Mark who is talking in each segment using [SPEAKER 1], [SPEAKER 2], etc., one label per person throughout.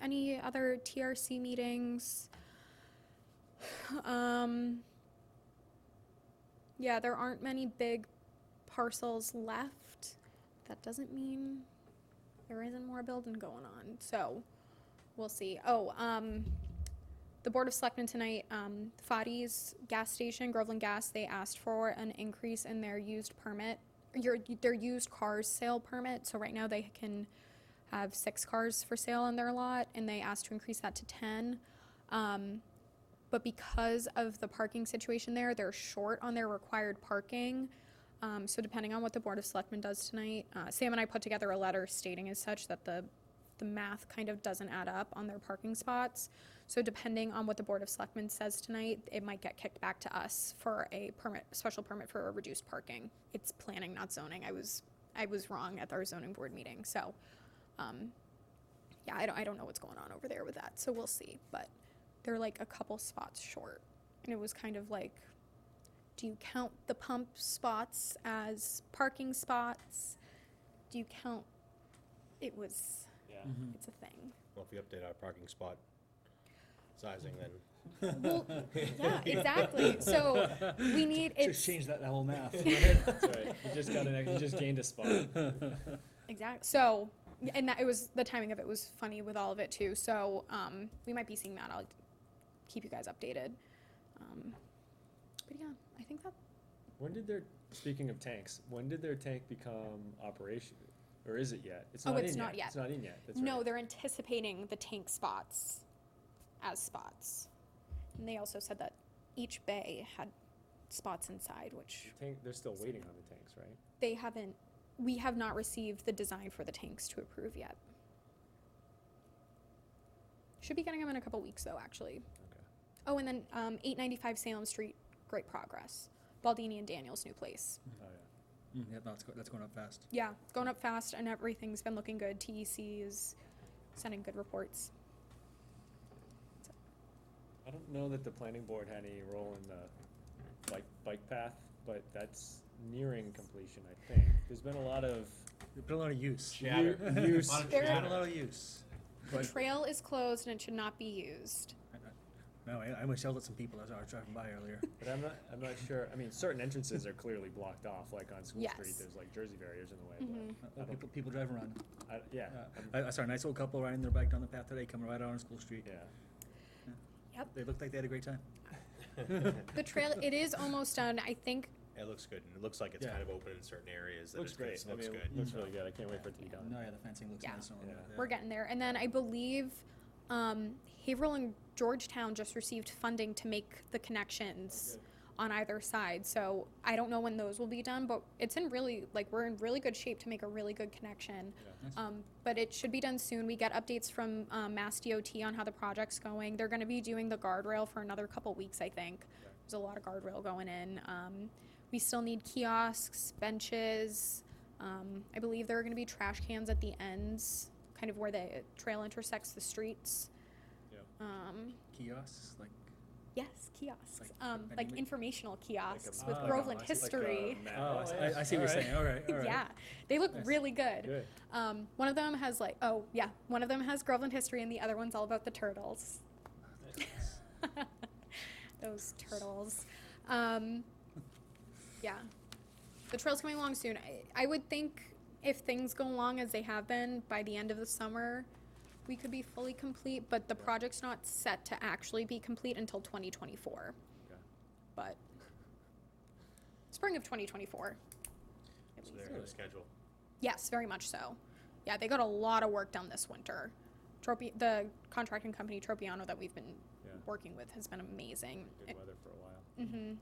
[SPEAKER 1] any other TRC meetings. Um, yeah, there aren't many big parcels left. That doesn't mean there isn't more building going on, so we'll see. Oh, um, the Board of Selectmen tonight, um, Fadi's gas station, Groveland Gas, they asked for an increase in their used permit, your, their used cars sale permit, so right now they can have six cars for sale on their lot, and they asked to increase that to ten. Um, but because of the parking situation there, they're short on their required parking. Um, so depending on what the Board of Selectmen does tonight, uh, Sam and I put together a letter stating as such that the, the math kind of doesn't add up on their parking spots. So depending on what the Board of Selectmen says tonight, it might get kicked back to us for a permit, special permit for a reduced parking. It's planning, not zoning. I was, I was wrong at our zoning board meeting, so, um, yeah, I don't, I don't know what's going on over there with that, so we'll see, but they're like a couple spots short. And it was kind of like, do you count the pump spots as parking spots? Do you count, it was,
[SPEAKER 2] Yeah.
[SPEAKER 3] Mm-hmm.
[SPEAKER 1] it's a thing.
[SPEAKER 4] Well, if we update our parking spot sizing, then
[SPEAKER 1] Well, yeah, exactly. So we need,
[SPEAKER 3] Just
[SPEAKER 1] it's,
[SPEAKER 3] change that whole math.
[SPEAKER 2] That's right. You just got an, ex- you just gained a spot.
[SPEAKER 1] exact, so, and that, it was, the timing of it was funny with all of it too. So, um, we might be seeing that. I'll keep you guys updated. Um, but yeah, I think that,
[SPEAKER 2] When did their, speaking of tanks, when did their tank become operation? Or is it yet?
[SPEAKER 1] Oh,
[SPEAKER 2] in
[SPEAKER 1] it's not yet.
[SPEAKER 2] It's not in yet, that's right.
[SPEAKER 1] no, they're anticipating the tank spots as spots. And they also said that each bay had spots inside, which
[SPEAKER 2] The Tank, they're still waiting on the tanks, right?
[SPEAKER 1] they haven't, we have not received the design for the tanks to approve yet. Should be getting them in a couple weeks though, actually.
[SPEAKER 2] Okay.
[SPEAKER 1] Oh, and then um, 895 Salem Street, great progress. Baldini and Daniel's new place.
[SPEAKER 2] Oh, yeah.
[SPEAKER 3] Mm, Yeah, that's, go- that's going up fast.
[SPEAKER 1] Yeah, it's going up fast and everything's been looking good. TEC is sending good reports.
[SPEAKER 2] I don't know that the planning board had any role in the bike, bike path, but that's nearing completion, I think. There's been a lot of
[SPEAKER 3] They put a lot of use.
[SPEAKER 4] Yeah. Chatter.
[SPEAKER 2] u- use,
[SPEAKER 4] Lot of
[SPEAKER 3] They put
[SPEAKER 1] There-
[SPEAKER 3] a lot of use.
[SPEAKER 1] The
[SPEAKER 2] but
[SPEAKER 1] trail is closed and it should not be used.
[SPEAKER 3] No, I, I almost yelled at some people as I was driving by earlier.
[SPEAKER 2] But I'm not, I'm not sure, I mean, certain entrances are clearly blocked off, like on School Street,
[SPEAKER 1] Yes.
[SPEAKER 2] there's like Jersey barriers in the way,
[SPEAKER 1] Mhm.
[SPEAKER 3] Uh,
[SPEAKER 2] don't-
[SPEAKER 3] People, people driving around.
[SPEAKER 2] but, I, yeah,
[SPEAKER 3] Uh,
[SPEAKER 2] I'm-
[SPEAKER 3] I, I saw a nice old couple riding their bike down the path today, coming right out on School Street.
[SPEAKER 2] yeah.
[SPEAKER 3] They looked like they had a great time.
[SPEAKER 1] The trail, it is almost done. I think
[SPEAKER 4] it looks good, and it looks like it's
[SPEAKER 2] Yeah.
[SPEAKER 4] kind of open in certain areas. that
[SPEAKER 2] Looks
[SPEAKER 4] it's gonna-
[SPEAKER 2] great, I
[SPEAKER 4] Looks
[SPEAKER 2] mean,
[SPEAKER 4] good.
[SPEAKER 2] looks really good, I can't wait for it to be done.
[SPEAKER 3] No, yeah, the fencing looks
[SPEAKER 1] Yeah.
[SPEAKER 3] nice. and all
[SPEAKER 2] Yeah.
[SPEAKER 3] that,
[SPEAKER 1] we're
[SPEAKER 3] yeah.
[SPEAKER 1] getting there. And then I believe um, Haverhill and Georgetown just received funding to make the connections on either side. So I don't know when those will be done, but it's in really, like, we're in really good shape to make a really good connection.
[SPEAKER 3] Nice.
[SPEAKER 1] Um, but it should be done soon. We get updates from um, Mass DOT on how the project's going. They're going to be doing the guardrail for another couple weeks, I think.
[SPEAKER 2] Okay.
[SPEAKER 1] There's a lot of guardrail going in. Um, we still need kiosks, benches. Um, I believe there are going to be trash cans at the ends, kind of where the trail intersects the streets.
[SPEAKER 2] Yeah.
[SPEAKER 1] Um,
[SPEAKER 3] Kiosks, like.
[SPEAKER 1] yes, kiosks.
[SPEAKER 3] Like
[SPEAKER 1] um,
[SPEAKER 3] vending
[SPEAKER 1] like
[SPEAKER 3] ma-
[SPEAKER 1] informational kiosks
[SPEAKER 2] Like a-
[SPEAKER 1] with
[SPEAKER 3] Ah, I
[SPEAKER 1] Groveland
[SPEAKER 3] see. Like a
[SPEAKER 1] history.
[SPEAKER 2] Like a map.
[SPEAKER 3] Oh, I see- I, I see what you're
[SPEAKER 2] Alright.
[SPEAKER 3] saying. All right, all right.
[SPEAKER 1] yeah, they look
[SPEAKER 3] Nice.
[SPEAKER 1] really good.
[SPEAKER 2] Good.
[SPEAKER 1] Um, one of them has like, oh yeah, one of them has Groveland history, and the other one's all about the turtles. Those turtles. Um, yeah, the trail's coming along soon. I, I would think if things go along as they have been by the end of the summer, we could be fully complete. But the project's not set to actually be complete until 2024.
[SPEAKER 2] Okay.
[SPEAKER 1] But spring of 2024. at
[SPEAKER 4] So
[SPEAKER 1] least.
[SPEAKER 4] they're on the schedule.
[SPEAKER 1] Yes, very much so. Yeah, they got a lot of work done this winter. Tropi- the contracting company Tropiano that we've been
[SPEAKER 2] Yeah.
[SPEAKER 1] working with has been amazing.
[SPEAKER 2] Good weather for a while.
[SPEAKER 1] Mm-hmm.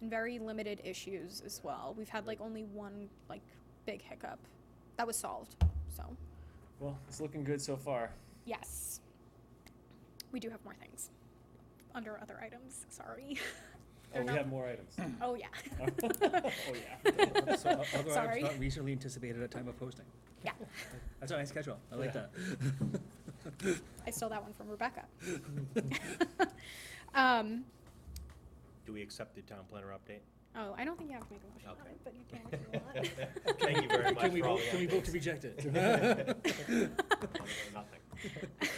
[SPEAKER 1] And very limited issues as well. We've had like only one like big hiccup that was solved. So
[SPEAKER 2] Well, it's looking good so far.
[SPEAKER 1] yes, we do have more things under other items. Sorry.
[SPEAKER 2] Oh,
[SPEAKER 1] They're
[SPEAKER 2] we
[SPEAKER 1] not-
[SPEAKER 2] have more items.
[SPEAKER 1] oh yeah.
[SPEAKER 2] Oh, yeah.
[SPEAKER 3] So, o- other items
[SPEAKER 1] Sorry.
[SPEAKER 3] not reasonably anticipated at time of posting.
[SPEAKER 1] Yeah,
[SPEAKER 3] That's a nice schedule. I like
[SPEAKER 2] Yeah.
[SPEAKER 3] that.
[SPEAKER 1] I stole that one from Rebecca. um,
[SPEAKER 4] Do we accept the town planner update?
[SPEAKER 1] Oh, I don't think you have to make a motion on
[SPEAKER 4] Okay.
[SPEAKER 1] it, but you can if you want.
[SPEAKER 4] Thank you very much
[SPEAKER 3] Can we
[SPEAKER 4] for all
[SPEAKER 3] vote,
[SPEAKER 4] the
[SPEAKER 3] can we vote to
[SPEAKER 4] updates.
[SPEAKER 3] reject it?
[SPEAKER 4] Nothing.